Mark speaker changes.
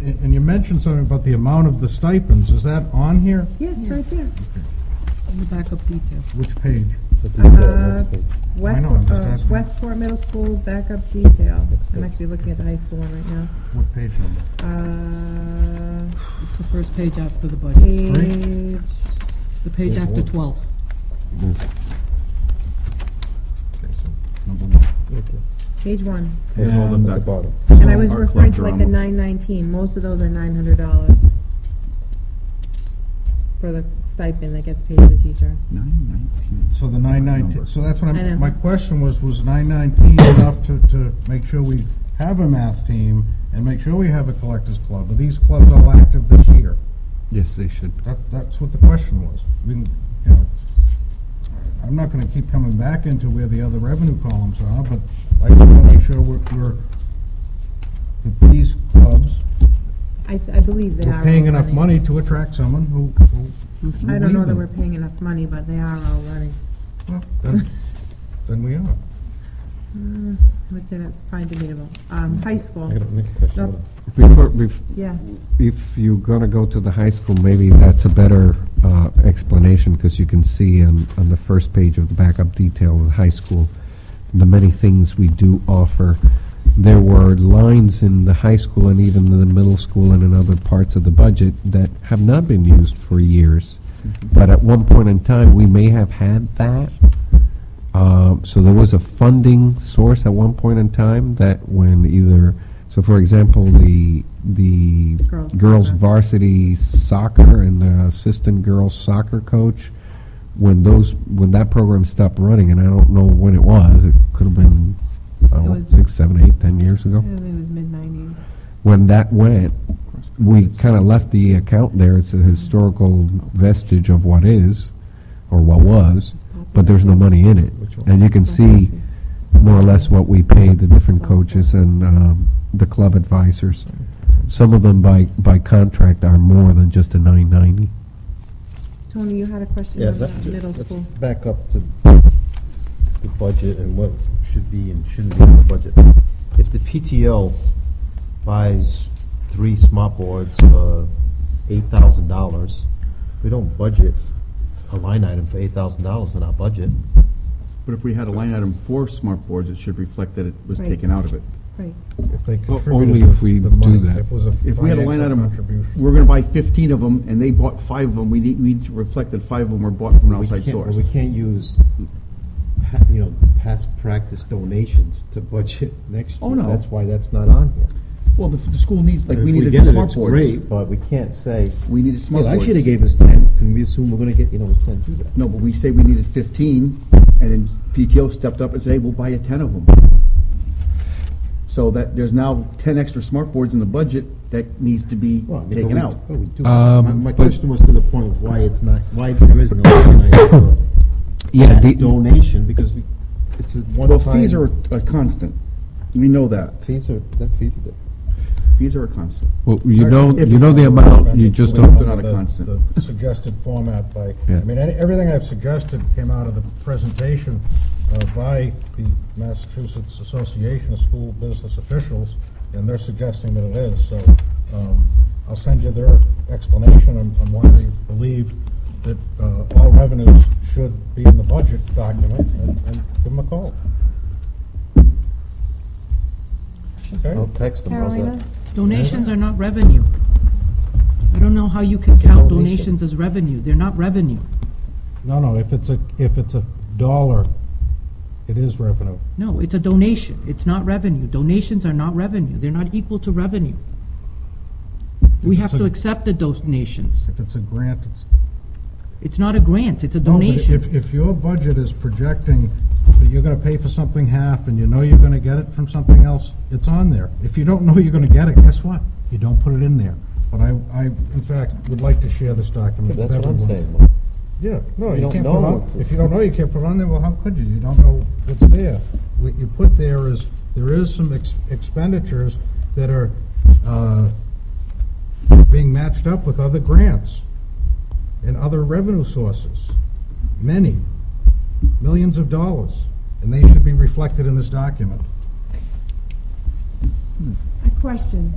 Speaker 1: and and you mentioned something about the amount of the stipends. Is that on here?
Speaker 2: Yeah, it's right there. In the backup detail.
Speaker 1: Which page?
Speaker 2: Uh,
Speaker 1: I'm
Speaker 2: Westport,
Speaker 1: just
Speaker 2: uh,
Speaker 1: asking.
Speaker 2: Westport Middle School backup detail. I'm
Speaker 3: good.
Speaker 2: actually looking at the high school one right now.
Speaker 1: What page number?
Speaker 2: Uh,
Speaker 4: It's the first page after the budget,
Speaker 2: page,
Speaker 4: It's the page after 12.
Speaker 1: Okay, so Number one.
Speaker 2: page one.
Speaker 5: There's all them
Speaker 2: Um,
Speaker 5: back.
Speaker 2: And I was
Speaker 5: Art
Speaker 2: referring to
Speaker 5: collector,
Speaker 2: like the nine
Speaker 5: I'm-
Speaker 2: nineteen, most of those are nine hundred dollars for the stipend that gets paid to the teacher.
Speaker 5: Nine nineteen.
Speaker 1: So the nine nineteen, so that's what
Speaker 2: I know.
Speaker 1: I'm, my question was, was nine nineteen enough to, to make sure we have a math team and make sure we have a collectors club? Are these clubs all active this year?
Speaker 3: Yes, they should.
Speaker 1: That, that's what the question was. We, didn't- you know, I'm not gonna keep coming back into where the other revenue columns are, but I just wanna make sure we're, we're, that these clubs,
Speaker 2: I, I believe they are.
Speaker 1: we're paying
Speaker 2: all
Speaker 1: enough
Speaker 2: running.
Speaker 1: money to attract someone who, who.
Speaker 2: I don't know that
Speaker 1: them.
Speaker 2: we're paying enough money, but they are all running.
Speaker 1: Well, Then then we are.
Speaker 2: I would say that's probably debatable. Um, high school,
Speaker 6: I got a next question.
Speaker 2: Yep.
Speaker 6: hold on.
Speaker 3: Before, bef-
Speaker 2: yeah.
Speaker 3: if you're gonna go to the high school, maybe that's a better uh, explanation, because you can see on, on the first page of the backup detail of the high school, the many things we do offer. There were lines in the high school and even in the middle school and in other parts of the budget that have not been used for years. But at one point in time, we may have had that. Uh, So there was a funding source at one point in time that when either, so for example, the, the
Speaker 2: Girls
Speaker 3: girls
Speaker 2: soccer.
Speaker 3: varsity soccer and the assistant girls soccer coach, when those, when that program stopped running, and I don't know when it was, it could have been, I don't
Speaker 2: It
Speaker 3: know,
Speaker 2: was-
Speaker 3: six, seven, eight, ten years ago
Speaker 2: I think it was mid-nineties.
Speaker 3: when that went, we kind of left the account there. It's a historical vestige of what is, or what was, but there's no money in it. And you can see more or less what we paid the different coaches and um, the club advisors. Some of them by, by contract are more than just a 990.
Speaker 2: Tony, you had a question
Speaker 7: Yeah,
Speaker 2: on
Speaker 7: that,
Speaker 2: the middle
Speaker 7: let's
Speaker 2: school.
Speaker 7: back up to the budget and what should be and shouldn't be in the budget. If the PTO buys three smart boards for eight thousand dollars, we don't budget a line item for eight thousand dollars in our budget.
Speaker 5: But if we had a line item for smart boards, it should reflect that it was
Speaker 2: Right.
Speaker 5: taken out of it.
Speaker 2: Right.
Speaker 1: If they
Speaker 3: O-
Speaker 1: contributed
Speaker 3: only
Speaker 1: the-
Speaker 3: if we
Speaker 1: the
Speaker 3: do
Speaker 1: money,
Speaker 3: that.
Speaker 1: If it was a
Speaker 5: If we had a line
Speaker 1: financial
Speaker 5: item,
Speaker 1: contribution.
Speaker 5: we're gonna buy fifteen of them, and they bought five of them, we need, we reflect that five of them were bought from an
Speaker 7: We
Speaker 5: outside
Speaker 7: can't-
Speaker 5: source.
Speaker 7: We can't use, pa- you know, past practice donations to budget next year.
Speaker 5: Oh, no.
Speaker 7: That's why that's not on here.
Speaker 5: Well, the, the school needs, like,
Speaker 7: If
Speaker 5: we needed
Speaker 7: get it,
Speaker 5: smart
Speaker 7: it's
Speaker 5: boards.
Speaker 7: Great, but we can't say,
Speaker 5: We needed smart
Speaker 7: well,
Speaker 5: boards.
Speaker 7: I should have gave us ten, can we assume we're gonna get, you know, we can't do that.
Speaker 5: No, but we say we needed fifteen, and then PTO stepped up and said, hey, we'll buy you ten of them. So that, there's now ten extra smart boards in the budget that needs to be
Speaker 7: Well, I mean, but
Speaker 5: taken
Speaker 7: we-
Speaker 5: out.
Speaker 7: but we do.
Speaker 3: Um,
Speaker 7: My my
Speaker 3: but-
Speaker 7: question was to the point of why it's not, why there is no organized for
Speaker 3: Yeah,
Speaker 7: that donation, because we, it's a one-time.
Speaker 5: Well, fees are a constant, we know that,
Speaker 7: Fees are, that fees are different.
Speaker 5: fees are a constant.
Speaker 3: well, you know,
Speaker 5: If-
Speaker 3: you know the amount, you just
Speaker 5: Well,
Speaker 3: don't.
Speaker 5: they're not a
Speaker 1: The-
Speaker 5: constant.
Speaker 1: the Suggested format by, I
Speaker 3: Yeah.
Speaker 1: mean, any- everything I've suggested came out of the presentation uh, by the Massachusetts Association of School Business Officials, and they're suggesting that it is, so um, I'll send you their explanation on on why they believe that uh, all revenues should be in the budget document, and and give them a call. Okay?
Speaker 7: I'll text them. how's that?
Speaker 2: Carolina?
Speaker 4: Donations are not revenue. I don't know how you can count
Speaker 7: donation.
Speaker 4: donations as revenue. They're not revenue.
Speaker 1: No, no, if it's a, if it's a dollar, it is revenue.
Speaker 4: No, it's a donation. It's not revenue. Donations are not revenue. They're not equal to revenue. We
Speaker 1: It's
Speaker 4: have to
Speaker 1: a-
Speaker 4: accept the donations.
Speaker 1: If it's a grant, it's
Speaker 4: It's not a grant, it's a
Speaker 1: No, but
Speaker 4: donation.
Speaker 1: If, if your budget is projecting that you're gonna pay for something half, and you know you're gonna get it from something else, it's on there. If you don't know you're gonna get it, guess what? You don't put it in there. But I, I, in fact, would like to share this document with
Speaker 7: That's what
Speaker 1: everyone.
Speaker 7: I'm saying, Mike.
Speaker 1: Yeah, no,
Speaker 7: You
Speaker 1: you
Speaker 7: don't
Speaker 1: can't put
Speaker 7: know
Speaker 1: it on,
Speaker 7: what-
Speaker 1: if you don't know, you can't put it on there, well, how could you? You don't know what's there. What you put there is, there is some ex- expenditures that are, uh, being matched up with other grants and other revenue sources. Many, millions of dollars, and they should be reflected in this document.
Speaker 2: A question.